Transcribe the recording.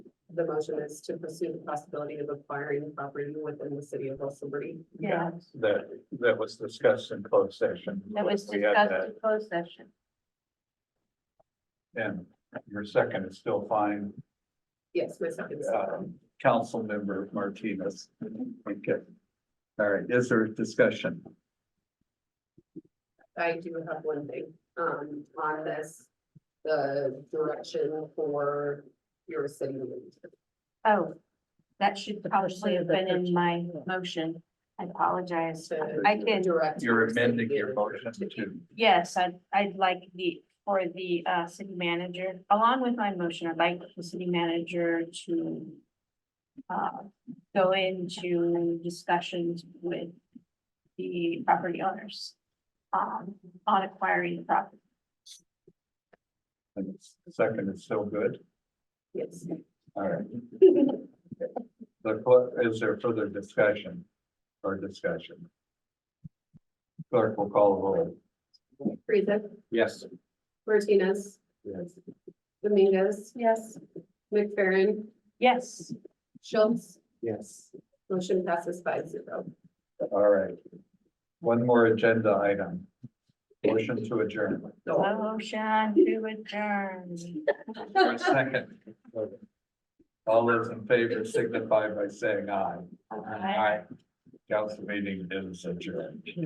the motion is to pursue the possibility of acquiring property within the city of Wilson-Berry. Yeah, That, that was discussed in closed session. that was We had discussed that, in closed session. And your second is still fine, Yes, my second. um, council member Martinez. Mm-hmm. Okay. All right, is there discussion? I do have one thing, um, on this, the direction for your city. manager. Oh, that should probably have been in my motion. I apologize. To I can- Direct. You're your city amending your manager motion to- to, Yes, I'd, I'd like the, for the, uh, city manager, along with my motion, I'd like the city manager to uh, go into discussions with the property owners um, on acquiring the property. and the second is still good. Yes. All right. The, clerk- is there further discussion or discussion? Clerk will call the roll. Friesen, Yes. Martinez. Yes. Dominguez, Yes. McFerrin, Yes, Schultz, Yes. motion passes five zero. All right. One more agenda item. Motion to adjourn. motion to adjourn. For a second. All those in favor signify by saying aye. All right. Aye. Council meeting is adjourned.